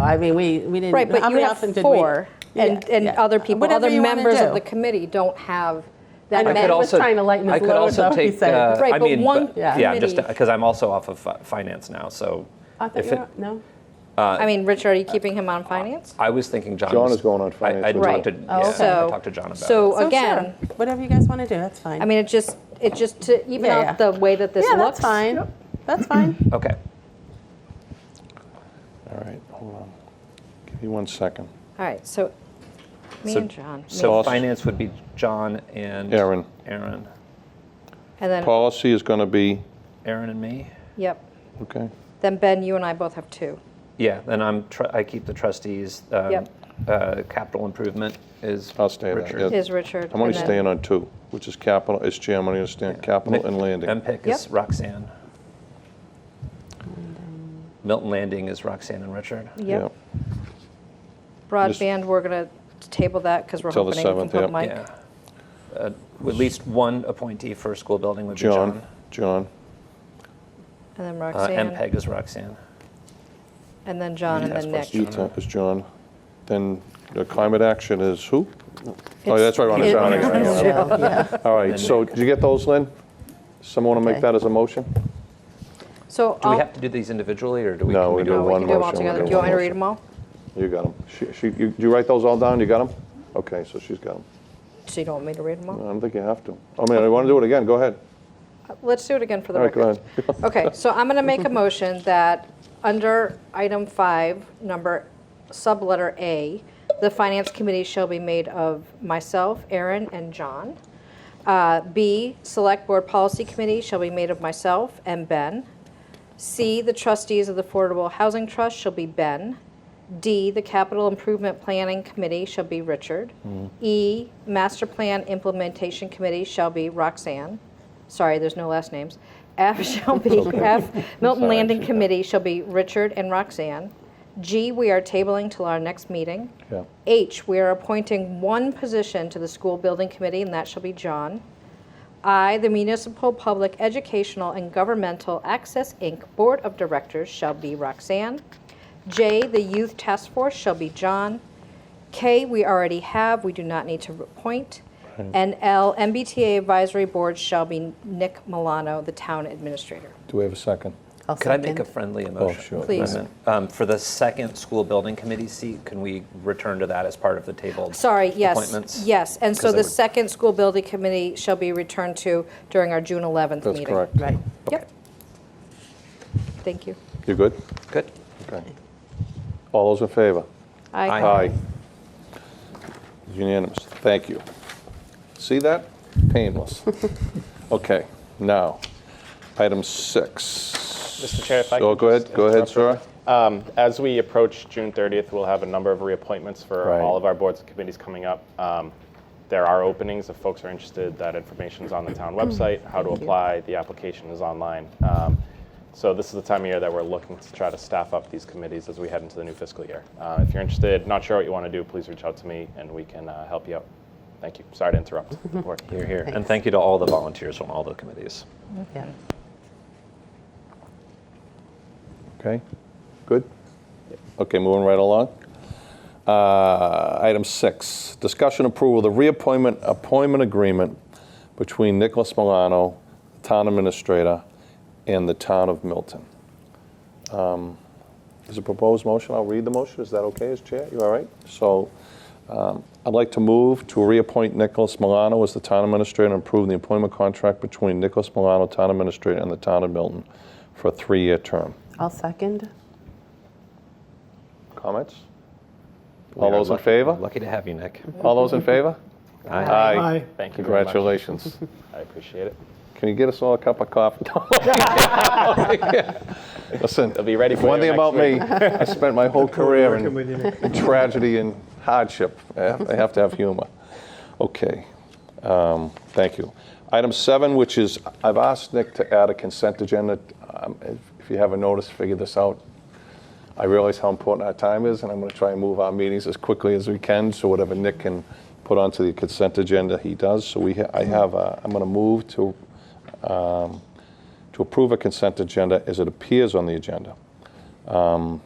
I mean, we, we didn't. Right, how but you many have often did we- four, and, Yeah, and yeah. other people, Whatever other you wanna members do. of the committee don't have that I I Ben could many. was also, trying to lighten I his could load, though, also he take. said. uh, Right, I but mean, one yeah, yeah, just committee- because I'm also off of fi- finance now, so. I thought if you it- were, no? I mean, Rich, are you keeping him on finance? I was thinking John. John was- is going on I- finance I with talked to, John. yeah, I Oh, So- talked to John about it. So So again, sure, Whatever you guys want to do, that's fine. I mean, it just, it just, to even Yeah, out yeah. the way that this Yeah, looks. that's fine. That's fine. Okay. All right, hold on. Give me one second. All right, so, me So- and John, me So Boss. finance would be John and. Aaron. Aaron. and then, Policy is going to be, Aaron and me. yep. okay, Then Ben, you and I both have two. Yeah, then I'm. Tr- I keep the trustees. Um, Yep. uh, capital improvement is. I'll stay there. Richard. yeah. Is Richard. I'm only and then- staying on two, which is capital, it's Jim, I'm going to stay on capital and landing. MPIC is Yep. Roxanne. Milton Landing is Roxanne and Richard. Yeah. Yep. Broadband, we're going to table that because we're Till the hoping you can 7th, put yep. Mike. Yeah. Uh, At least one appointee for school building would be John. John, John, And then Uh, Roxanne, MPEG is Roxanne. and then John, and Task then Force Nick. Ethan is John. Then the climate action is who? Oh, It's- that's right, Ron is it- on it. Yeah, yeah. All right, so did you get those, Lynn? Someone want to Okay. make that as a motion? So, Do we I'll- have to do these individually, or do we? No, can we we do no, we one can do them all motion, together. Do we'll do you want me to one read them all? You got them. She, she, you, you write those all down? You got them? Okay, so she's got them. So you don't want me to read them all? I don't think you have to. I mean, I want to do it again. Go ahead. Let's do it again for the All right, record. go ahead. Okay, so I'm going to make a motion that under item five, number, subletter A, the finance committee shall be made of myself, Aaron, and John. Uh, B, select board policy committee shall be made of myself and Ben. C, the trustees of the Affordable Housing Trust shall be Ben. D, the Capital Improvement Planning Committee shall be Richard. E, Master Plan Implementation Committee shall be Roxanne. Sorry, there's no last names. F shall be, F, Milton Sorry, Landing she- Committee shall be Richard and Roxanne. G, we are tabling till our next meeting. Yeah. H, we are appointing one position to the School Building Committee, and that shall be John. I, the Municipal Public Educational and Governmental Access, Inc. Board of Directors shall be Roxanne. J, the Youth Task Force shall be John. K, we already have, we do not need to appoint. And L, MBTA Advisory Board shall be Nick Milano, the Town Administrator. Do we have a second? I'll Could I make a second. friendly motion? Oh, sure. Please. amendment? Um, for the second school building committee seat, can we return to that as part of the tabled? Sorry, yes, Appointments? yes. And so 'Cause I the would- second school building committee shall be returned to during our June 11th That's meeting. correct. Right. Yep. Thank you. You good? Good. Okay. All those in favor? Aye. Unanimous. Thank you. See that? Painless. Okay, now, item six. Mr. Chair, if I Oh, could go ahead, just go ahead, interrupt real sir. Um, As we approach June 30th, we'll have a number of reappointments for Right. all of our boards and committees coming up. Um, There are openings, if folks are interested, that information's on the Mm-hmm. town website, how to apply, the application is online. Um, So this is the time of year that we're looking to try to staff up these committees as we head into the new fiscal year. Uh, If you're interested, not sure what you want to do, please reach out to me and we can uh, help you out. Thank you. Sorry to interrupt. Board. You're here, and thank you to all the volunteers on all the committees. Yeah. Okay, good? Okay, moving right along. Uh, Item six, discussion approval of the reappointment, appointment agreement between Nicholas Milano, Town Administrator, and the Town of Milton. Um, Is a proposed motion, I'll read the motion, is that okay as chair? You all right? So um, I'd like to move to reappoint Nicholas Milano as the Town Administrator and approve the employment contract between Nicholas Milano, Town Administrator, and the Town of Milton for a three-year term. I'll second. Comments? All those in favor? Lucky to have you, Nick. All those in favor? Aye. Thank you very much. Congratulations. I appreciate it. Can you get us all a cup of coffee? Listen, They'll be ready for one you thing next about me, week. I spent my whole career in in tragedy and hardship. I have- I have to have humor. Okay, um, thank you. Item seven, which is, I've asked Nick to add a consent agenda. Um, if- If you haven't noticed, figure this out. I realize how important our time is, and I'm going to try and move our meetings as quickly as we can, so whatever Nick can put onto the consent agenda, he does. So we, ha- I have, a- I'm going to move to, um, to approve a consent agenda as it appears on the agenda. Um,